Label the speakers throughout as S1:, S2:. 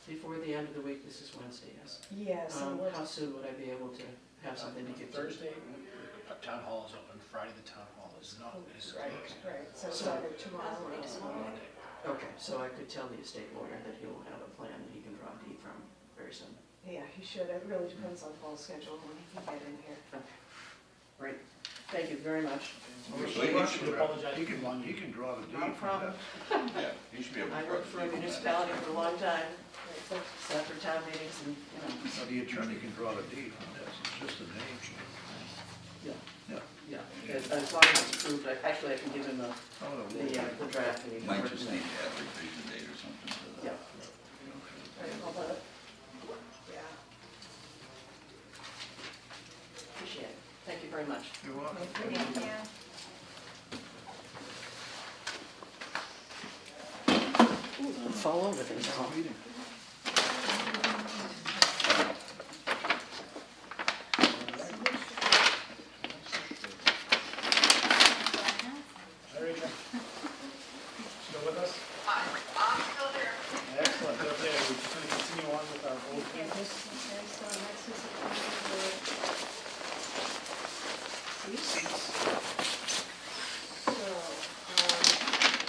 S1: time of the week, this is Wednesday, yes.
S2: Yeah, so
S1: Um,
S2: what,
S1: how soon would I be able to have something to give to you?
S3: Thursday, uh, town hall is open, Friday the town hall is not, is
S2: right,
S3: closed.
S2: right, so it's either tomorrow or
S3: Monday.
S1: Okay, so I could tell the estate lawyer that he'll have a plan that he can draw deed from very soon.
S2: Yeah, he should, it really depends on Paul's schedule when he can get in here.
S1: Great, thank you very much.
S3: We
S4: So he
S3: should
S4: should-
S3: apologize
S4: He
S3: for the
S4: can,
S3: long-
S4: he can draw the deed.
S1: Not a
S4: from
S1: problem.
S4: that. Yeah, he should be able to.
S1: I
S4: draw
S1: worked
S4: the
S1: for a
S4: deed from that.
S1: municipality for a long time,
S2: Right, so-
S1: sat for town meetings and, you know,
S4: Now, the attorney can draw the deed from this, it's just a name change.
S1: yeah,
S4: Yeah.
S1: yeah. As as long as it's approved, I- actually, I can give him the,
S4: Oh, the
S1: the uh, the
S4: wall.
S1: draft. and he can
S5: Might
S1: work
S5: just
S1: it out.
S5: need to add revision date or something to
S1: Yeah,
S5: that.
S2: Right, hold on. Yeah,
S1: appreciate it, thank you very much.
S4: You want?
S1: Fall over things, huh?
S4: Meeting.
S3: Hi, Rachel. Still with us?
S6: Yes,
S3: Excellent, okay, we're just gonna continue on with our old business.
S6: okay, so next is the
S2: uh, so,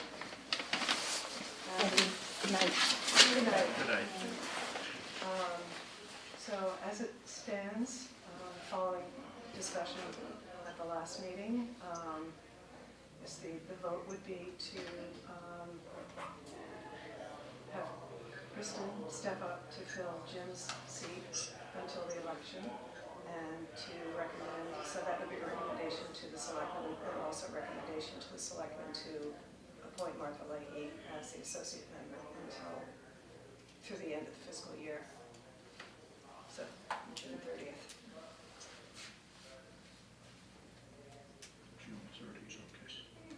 S2: um. um, Good night.
S4: Good night.
S2: Um, So as it stands, um, following discussion uh, at the last meeting, um, is the, the vote would be to um, have Kristen step up to fill Jim's seat until the election and to recommend, so that would be a recommendation to the selectmen and also a recommendation to the selectmen to appoint Martha Leahy as the associate member until through the end of the fiscal year. So, June thirtieth.
S4: June thirtieth, okay.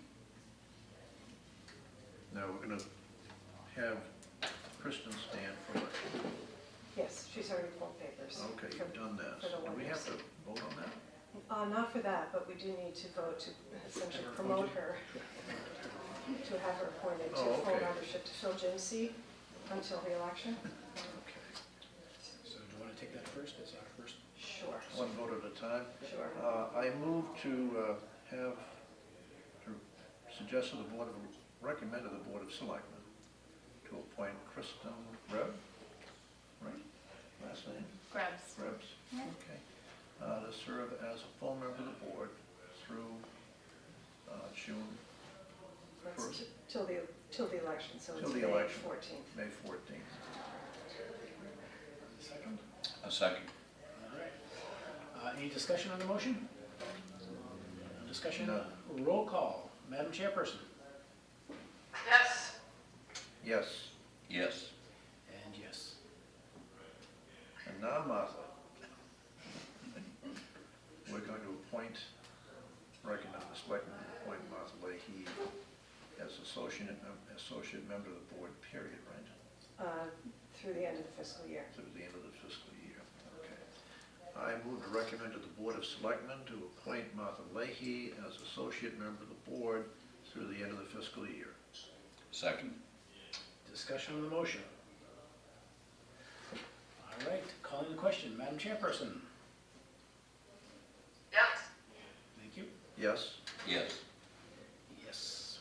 S4: Now, we're gonna have Kristen stand for election.
S2: Yes, she's already pulled papers.
S4: Okay, you've done that.
S2: For the
S4: Do we
S2: one-year
S4: have to
S2: seat.
S4: vote on that?
S2: Uh, not for that, but we do need to vote to essentially promote her, to have her appointed to
S4: Oh,
S2: full
S4: okay.
S2: membership to fill Jim's seat until the election.
S4: Okay.
S3: So do you wanna take that first, as our first?
S2: Sure,
S4: One vote at a time.
S2: sure.
S4: Uh, I move to uh, have, to suggest to the Board of, recommend to the Board of Selectmen to appoint Kristen Reb, right, last name,
S6: Grubbs.
S4: Rebs, okay, uh, to serve as a full member of the board through uh, June,
S2: That's
S4: first.
S2: t- Till the, till the election, so it's
S4: Till the
S2: May
S4: election.
S2: fourteenth.
S4: May 14th.
S3: Second.
S5: A second.
S3: All right. Uh, any discussion on the motion? No Discussion,
S4: Um, No.
S3: roll call, Madam Chairperson,
S6: Yes.
S4: Yes,
S5: Yes.
S3: and yes.
S4: and now Martha. We're going to appoint, recommend the Selectmen to appoint Martha Leahy as associate, mem- associate member of the board, period, right?
S2: Uh, through the end of the fiscal year.
S4: through the end of the fiscal year. Okay. I move to recommend to the Board of Selectmen to appoint Martha Leahy as associate member of the board through the end of the fiscal year.
S5: Second.
S3: Discussion on the motion. All right, calling the question, Madam Chairperson,
S6: Yes.
S3: thank you.
S4: Yes?
S5: Yes.
S3: Yes.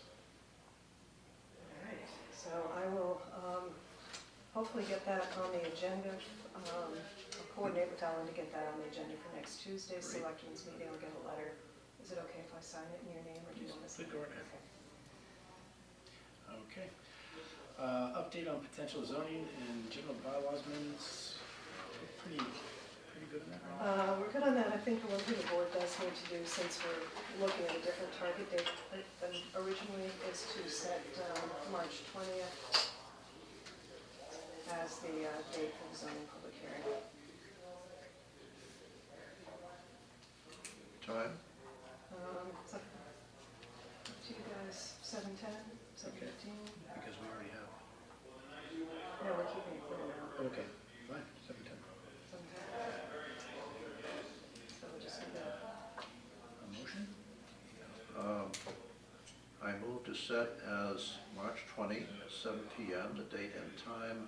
S2: All right, so I will um, hopefully get that on the agenda. um, I'll Coordinate with Alan to get that on the agenda for next Tuesday's
S4: Great.
S2: selectmen's meeting. I'll get a letter. Is it okay if I sign it in your name or do you want to sign?
S3: Please go right ahead.
S2: Okay.
S3: Okay. Uh, Update on potential zoning and general bylaws amendments. Pretty, pretty good on that, right?
S2: Uh, We're good on that. I think the one thing the board does need to do, since we're looking at a different target date than originally, is to set um, March 20th as the uh, date for the zoning public hearing.
S4: Time?
S2: Um, it's up to you guys, seven ten, seven
S3: Okay.
S2: fifteen?
S3: Because we already have.
S2: No, we're keeping it for now,
S3: Okay, fine, seven ten.
S2: seven ten. So we'll just do that.
S3: A motion?
S4: Um, I move to set as March 20, 7 PM, the date and time